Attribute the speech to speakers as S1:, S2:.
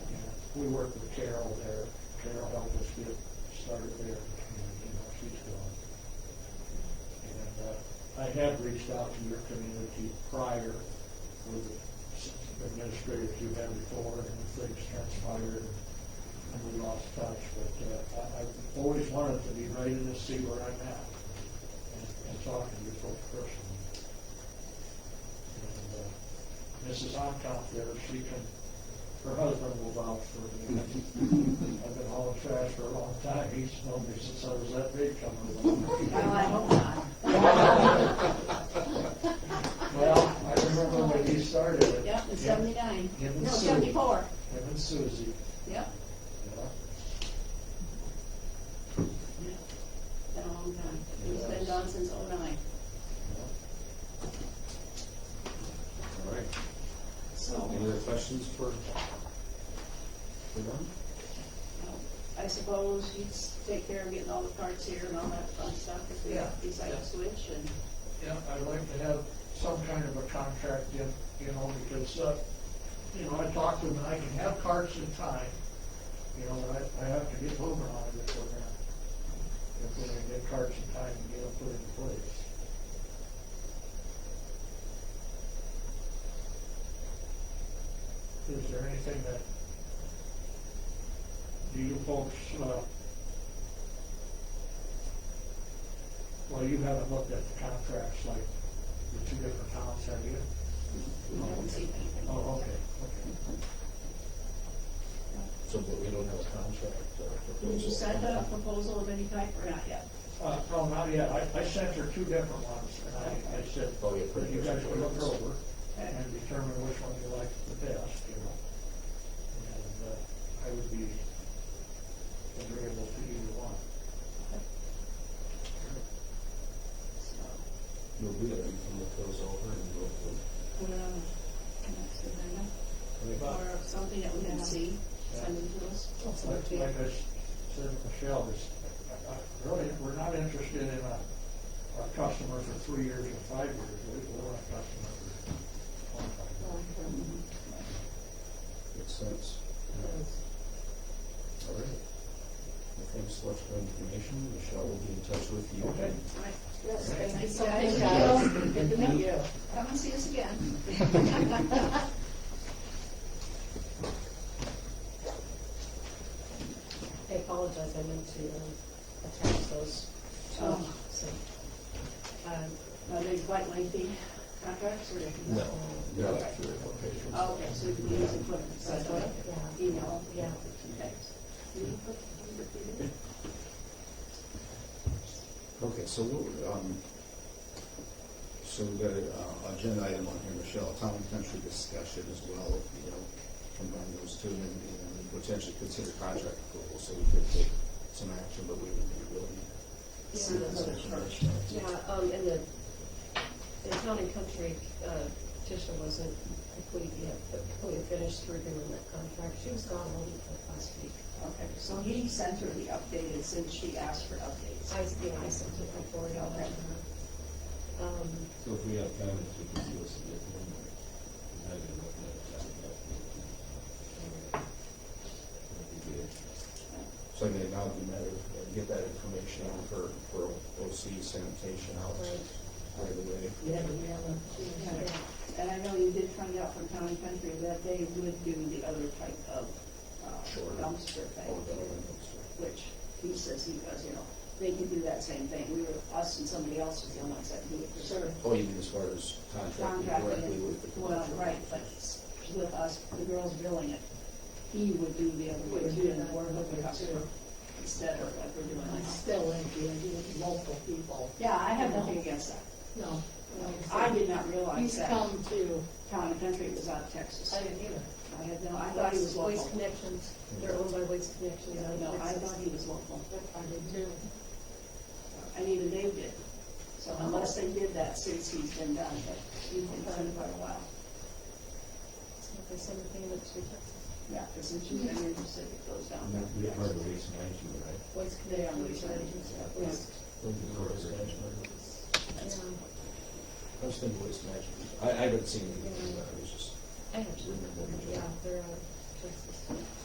S1: we worked with Carol there. Carol helped us get started there, and, you know, she's gone. And, uh, I have reached out to your community prior with s- administrators you had before, and things transpired, and we lost touch, but, uh, I, I've always wanted to be right in to see where I'm at, and, and talk to you folks personally. And, uh, Mrs. Hockout there, she can, her husband will vouch for me. I've been hauling trash for a long time. He's known me since I was that big coming
S2: Oh, I
S1: along.
S2: hope not.
S1: Well, I remember when he started it.
S2: Yep, in seventy-nine,
S1: Him and
S2: no,
S1: Sue.
S2: seventy-four,
S1: Him and Susie,
S2: yep,
S1: you know.
S2: been a long time. He's been gone since oh oh-nine.
S3: All right,
S2: So,
S3: any other questions for, for them?
S2: I suppose he'd take care of getting all the carts here and all that fun stuff if
S1: Yeah.
S2: we decide to switch and,
S1: Yeah, I'd like to have some kind of a contract in, you know, because, uh, you know, I talked to him, and I can have carts in time. You know, but I, I have to get moving on it if we're gonna, if we're gonna get carts in time and get them put in place. Is there anything that, do you folks, uh, well, you haven't looked at the contracts like the two different towns, have you?
S2: we haven't seen anything.
S1: Oh, okay, okay.
S3: So, but we don't have a contract uh, proposal.
S2: Did you send a proposal of any type or not yet?
S1: Uh, no, not yet. I, I sent her two different ones, and I, I said,
S3: Oh, yeah, pretty
S1: you
S3: much.
S1: guys will look over
S2: Okay.
S1: and determine which one you like the best, you know? And, uh, I would be agreeable to either one.
S2: So,
S3: You'll do that, you can look those over and go through.
S2: put it on the next agenda
S1: Well-
S2: or something that we can see, send it to us.
S1: Like like Oh, I s- said, to Michelle, is, really, we're not interested in a, a customer for three years or five years. We we want a customer for twenty-five years.
S3: Makes sense. All right. Well, Thanks so much for the information. Michelle will be in touch with you.
S1: Okay.
S2: Right.
S4: Yes, thank you so
S2: Thank
S4: much,
S2: you.
S4: guys. Good to meet you.
S2: Come and see us again.
S4: I apologize, I meant to uh, attach those.
S2: Oh.
S4: So, um,
S2: Are they quite lengthy contracts or?
S3: No, they're like three or four pages.
S2: Oh, Okay, so we can use it for, so I thought,
S4: yeah,
S2: email,
S4: yeah.
S2: okay.
S5: Okay, so, we'll, um, so we've got an agenda item on here, Michelle, town and country discussion as well, you know, combine those two and, and potentially consider contract approval, so we could take some action, but we would be willing. to see that session first.
S4: Yeah, um, and the, the town and country uh, petition wasn't complete yet, but we finished reviewing that contract. She was gone all week like last week.
S2: Okay, so he sent her the updated since she asked for updates.
S4: I, yeah, I sent it my board all that. Um,
S6: So if we have comments, we can see what's the difference. And I can look at it, I'll look at it. That'd be good.
S5: So I mean, now it'd be a matter of uh, get that information out for, for OC sanitation out
S4: Right.
S5: right away.
S4: yeah, yeah, yeah.
S2: And I know you did find out from Town and Country that they would do the other type of uh,
S5: Sure.
S2: dumpster
S5: All
S2: thing,
S5: done and that's it.
S2: which he says he does, you know, they can do that same thing. We were, us and somebody else was the only ones that do it. Sure.
S5: Oh, you mean as far as contracting directly with the
S2: Contracting, well,
S5: commercial?
S2: right, but s- with us, the girls billing it, he would do the other way
S4: Would
S2: too,
S4: do
S2: and
S4: that.
S2: we're looking up to instead of like we're doing
S7: I
S2: now.
S7: still like the idea of multiple people.
S2: Yeah, I have nothing against that.
S7: No.
S2: I did not realize
S7: He's
S2: that
S7: come to,
S2: Town and Country was out of Texas.
S4: I didn't either.
S2: I had no, I thought he was
S4: Waste
S2: local.
S4: Connections, they're owned by Waste Connections.
S2: No, no, I thought he was local.
S7: I did too.
S2: And even they did. So unless they did that since he's been done, but he's been done for a while.
S4: They send the payments to Texas.
S2: Yeah, because since you've been in the city, it goes down.
S6: And that'd be a part of the reason I do, it, right?
S4: Waste
S2: They are
S4: Connections,
S2: waste
S4: Connections,
S2: management.
S4: yeah, waste.
S3: Those are the correct arrangements.
S4: Yeah,
S5: I was thinking waste management. I, I haven't seen anything, but I was just,
S4: uh, I have to remember, yeah, they're out of Texas.